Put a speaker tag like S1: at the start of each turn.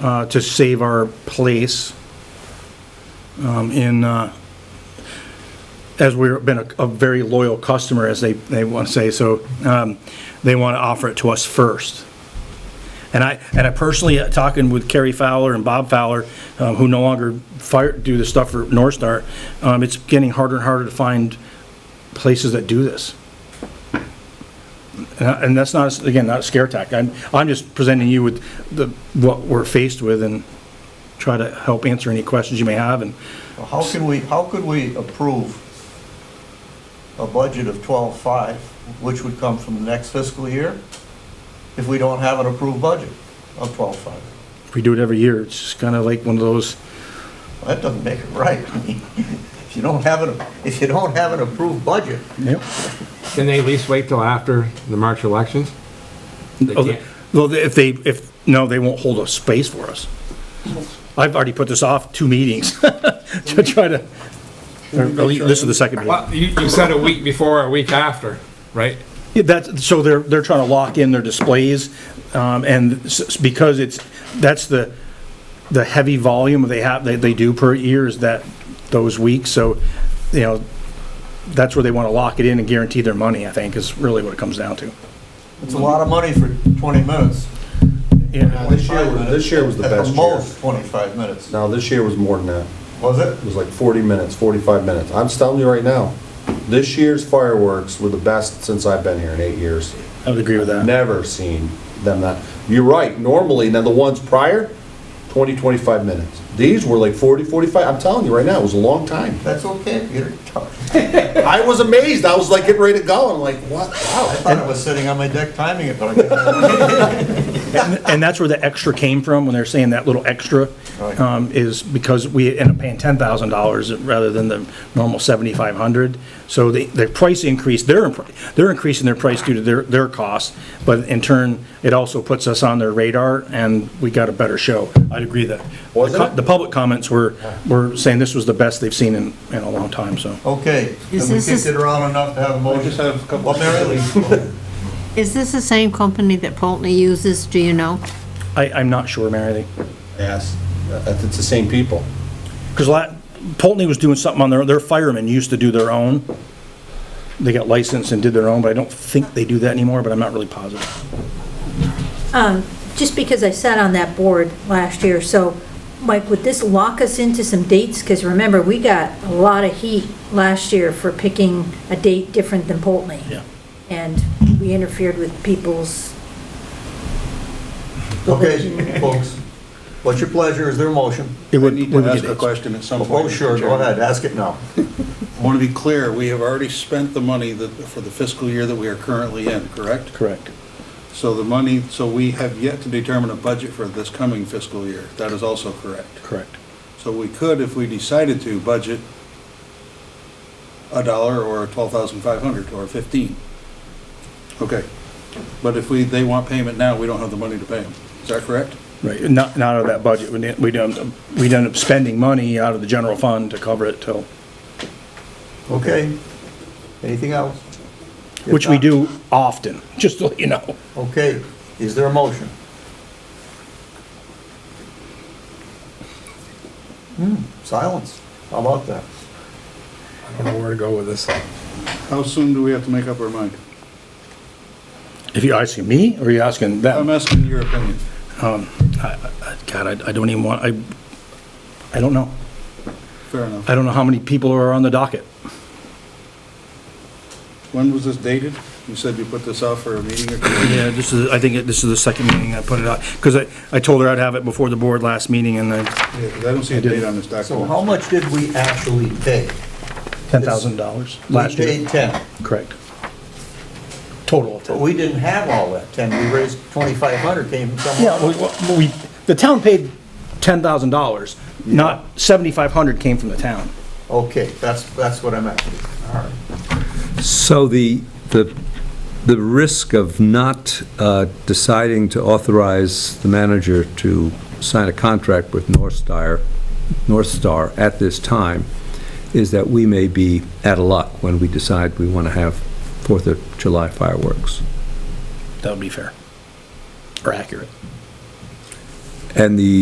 S1: uh, to save our place um, in, uh, as we've been a- a very loyal customer, as they, they want to say, so um, they want to offer it to us first. And I, and I personally, uh, talking with Kerry Fowler and Bob Fowler, uh, who no longer fire, do the stuff for North Star, um, it's getting harder and harder to find places that do this. And I- Uh, and that's not, again, not a scare tactic. I'm, I'm just presenting you with the, what we're faced with and try to help answer any questions you may have and
S2: How can we, how could we approve a budget of twelve-five, which would come from the next fiscal year, if we don't have an approved budget of twelve-five?
S1: if we do it every year, it's just kind of like one of those,
S2: That doesn't make it right. I mean, If you don't have an, if you don't have an approved budget,
S1: Yep.
S3: Can they at least wait till after the March elections? They
S1: Oh,
S3: can't.
S1: Well, if they, if, no, they won't hold a space for us. I've already put this off two meetings to try to, or at least this is the second meeting.
S3: Well, you, you said a week before, a week after, right?
S1: Yeah, That's, so they're, they're trying to lock in their displays, um, and s- because it's, that's the, the heavy volume they have, they, they do per year is that, those weeks, so, you know, that's where they want to lock it in and guarantee their money, I think, is really what it comes down to.
S2: it's a lot of money for twenty minutes.
S1: Yeah.
S4: This year was- this year was the
S2: At
S4: best
S2: the
S4: year.
S2: most, twenty-five minutes.
S4: Now, this year was more than that.
S2: Was it?
S4: It was like 40 minutes, 45 minutes. I'm just telling you right now, this year's fireworks were the best since I've been here in eight years.
S1: I would agree with that.
S4: Never seen them that. You're right, normally, now the ones prior, 20, 25 minutes. These were like 40, 45. I'm telling you right now, it was a long time.
S2: That's okay, Peter. I
S4: I was amazed. I was like getting ready to go. I'm like, what? Wow.
S2: thought I was sitting on my deck timing it, but I guess
S1: And that's where the extra came from, when they're saying that little extra,
S2: Right.
S1: um, is because we end up paying ten thousand dollars rather than the normal seventy-five hundred. So the, the price increase, they're, impr- they're increasing their price due to their, their costs, but in turn, it also puts us on their radar and we got a better show. I'd agree that.
S4: Was
S1: the co-
S4: it?
S1: The public comments were, were saying this was the best they've seen in, in a long time, so.
S4: Oh.
S2: Okay,
S5: Is
S2: then we
S5: this
S2: kicked
S5: is-
S2: it around enough to have a motion.
S6: just have a couple
S2: Well, Mary Lee,
S5: Is this the same company that Pulteney uses, do you know?
S1: I, I'm not sure, Mary Lee.
S4: Yes, it's the same people.
S1: Because Pulteney was doing something on their, their firemen used to do their own. They got licensed and did their own, but I don't think they do that anymore, but I'm not really positive.
S7: just because I sat on that board last year, so, Mike, would this lock us into some dates? Because remember, we got a lot of heat last year for picking a date different than Polteny.
S1: Yeah.
S7: And we interfered with people's,
S2: okay, folks, what's your pleasure, is there a motion?
S1: It
S6: I
S1: would-
S6: need
S1: would
S6: to
S1: we
S6: ask
S1: get
S6: a
S1: it?
S6: question at some point.
S2: Oh, sure, go ahead, ask it now.
S6: I want to be clear, we have already spent the money that, for the fiscal year that we are currently in, correct?
S1: Correct.
S6: So the money, so we have yet to determine a budget for this coming fiscal year. That is also correct.
S1: Correct.
S6: So we could, if we decided to, budget a dollar or twelve thousand five hundred or fifteen. Okay. But if we, they want payment now, we don't have the money to pay them. Is that correct?
S1: Right, not, not out of that budget. We didn't, we don't, we ended up spending money out of the general fund to cover it till,
S2: Okay, anything else? If
S1: which we
S2: not-
S1: do often, just to let you know.
S2: Okay, is there a motion? Hmm, silence, how about that?
S3: I don't know where to go with this.
S6: How soon do we have to make up our mind?
S1: If you're asking me, or you're asking them?
S6: I'm asking your opinion.
S1: God, I, I don't even want, I, I don't know.
S6: Fair enough.
S1: I don't know how many people are on the docket.
S6: When was this dated? You said you put this out for a meeting or two.
S1: Yeah, this is, I think it- this is the second meeting I put it out, because I, I told her I'd have it before the board last meeting, and then
S6: Yeah, 'cause I don't see a date on this document.
S2: So how much did we actually pay?
S1: ten thousand dollars last
S2: We
S1: year.
S2: paid ten,
S1: Correct. Total of
S2: but
S1: ten.
S2: we didn't have all that ten, we raised twenty-five hundred, came from somewhere.
S1: Yeah, we- we, we- the town paid ten thousand dollars, not, seventy-five hundred came from the town.
S2: Okay, that's, that's what I'm asking. All right.
S8: So the, the, the risk of not uh, deciding to authorize the manager to sign a contract with North Star, North Star at this time is that we may be out of luck when we decide we want to have Fourth of July fireworks.
S1: That would be fair. Or accurate.
S8: And the